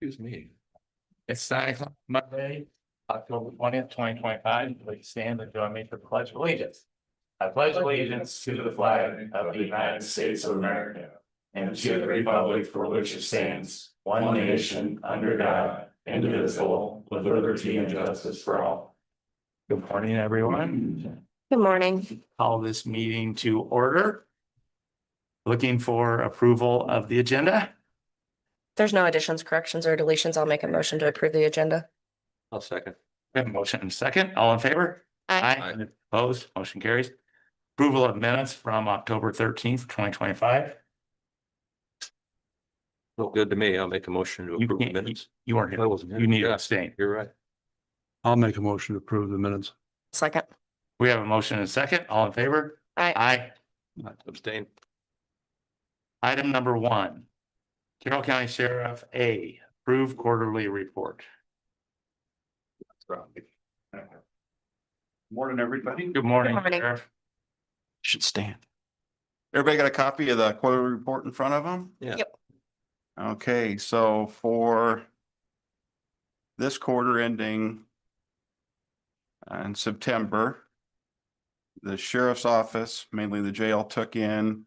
Excuse me. It's nine o'clock Monday, October twentieth, twenty twenty-five. Please stand and join me for the pledge of allegiance. I pledge allegiance to the flag of the United States of America and to the republic for which it stands, one nation, under God, indivisible, with liberty and justice for all. Good morning, everyone. Good morning. Call this meeting to order. Looking for approval of the agenda? There's no additions, corrections, or deletions. I'll make a motion to approve the agenda. I'll second. We have a motion and a second. All in favor? Aye. Aye. Opposed? Motion carries. Approval of minutes from October thirteenth, twenty twenty-five. Look good to me. I'll make a motion to You approve the can't- minutes. You weren't here. I wasn't. here. You need to Yeah, abstain. You're right. I'll make a motion to approve the minutes. Second. We have a motion and a second. All in favor? Aye. Aye. Abstain. Item number one. Carroll County Sheriff A, approve quarterly report. Morning, everybody. Good morning, Good morning. Sheriff. Should stand. Everybody got a copy of the quarterly report in front of them? Yeah. Yep. Okay, so for this quarter ending in September, the sheriff's office, mainly the jail, took in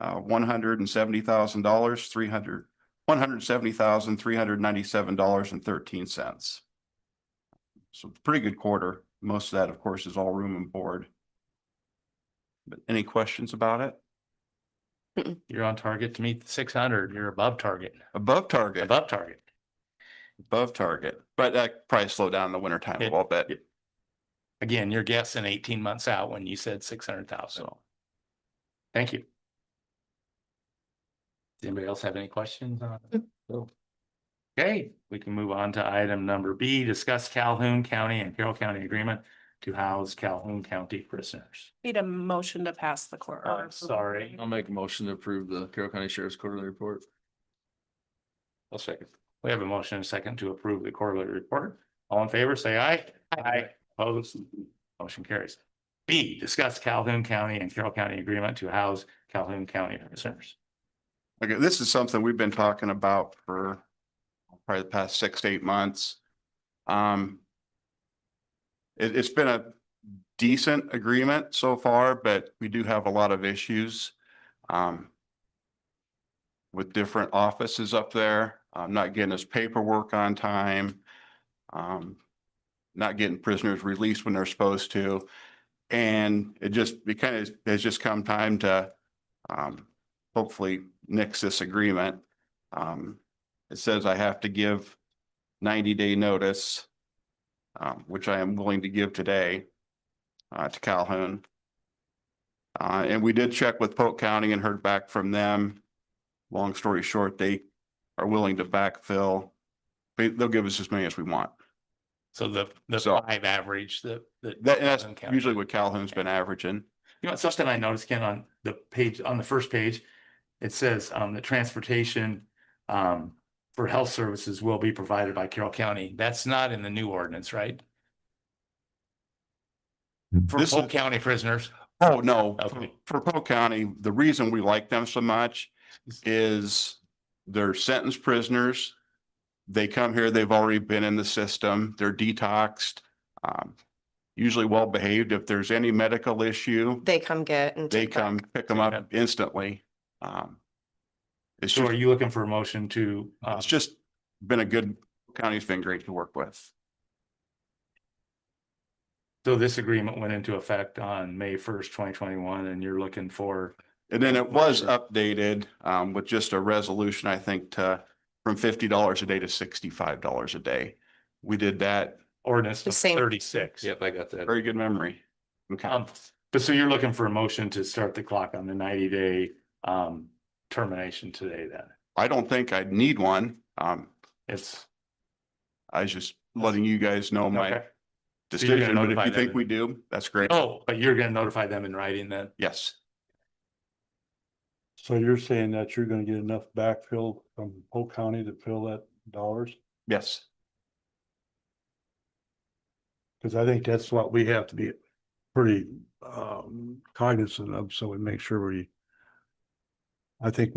uh, one hundred and seventy thousand dollars, three hundred, one hundred and seventy thousand, three hundred and ninety-seven dollars and thirteen cents. So pretty good quarter. Most of that, of course, is all room and board. But any questions about it? You're on target to meet six hundred. You're above target, Above target, above target. above target, but that probably slowed down in the winter time a It- little bit. it- Again, you're guessing eighteen months out when you said six hundred thousand. So, Thank you. Does anybody else have any questions on? it? No. Okay, we can move on to item number B, discuss Calhoun County and Carroll County agreement to house Calhoun County prisoners. Need a motion to pass the court. Uh, sorry. I'll make a motion to approve the Carroll County Sheriff's quarterly report. I'll second. We have a motion and a second to approve the quarterly report. All in favor, say aye. Aye. Opposed, motion carries. B, discuss Calhoun County and Carroll County agreement to house Calhoun County prisoners. Okay, this is something we've been talking about for probably the past six to eight months. Um, it, it's been a decent agreement so far, but we do have a lot of issues. Um, with different offices up there, um, not getting his paperwork on time. Um, not getting prisoners released when they're supposed to. And it just, it kind of, has just come time to, um, hopefully nix this agreement. Um, it says I have to give ninety day notice, um, which I am willing to give today, uh, to Calhoun. Uh, and we did check with Polk County and heard back from them. Long story short, they are willing to backfill. They, they'll give us as many as we want. So the, the So- five average, the, the. That, and that's Calhoun County. usually what Calhoun's been averaging. You know, something I noticed, Ken, on the page, on the first page, it says, um, the transportation, um, for health services will be provided by Carroll County. That's not in the new ordinance, right? For Hmm. This Polk is- County prisoners. Oh, no, for- Okay. for Polk County, the reason we like them so much is they're sentenced prisoners. They come here, they've already been in the system, they're detoxed, um, usually well-behaved. If there's any medical issue, They come get and. they take back. come pick them up instantly. Um, it's So are just, you looking for a motion to, uh, it's just been a good, county's been great to work with. so this agreement went into effect on May first, twenty twenty-one, and you're looking for, And then it was updated, um, with just a resolution, I think, to, from fifty dollars a day to sixty-five dollars a day. We did that. ordinance The same. thirty-six. Yep, I got that. Very good memory. Okay. Um, but so you're looking for a motion to start the clock on the ninety-day, um, termination today then? I don't think I'd need one. Um, It's. I was just letting you guys know my okay. So you're gonna decision, but if notify you them think we and- do, that's great. Oh, but you're gonna notify them in writing then? Yes, So you're saying that you're gonna get enough backfill from Polk County to fill that dollars? yes. Cause I think that's what we have to be pretty um cognizant of, so we make sure we. I think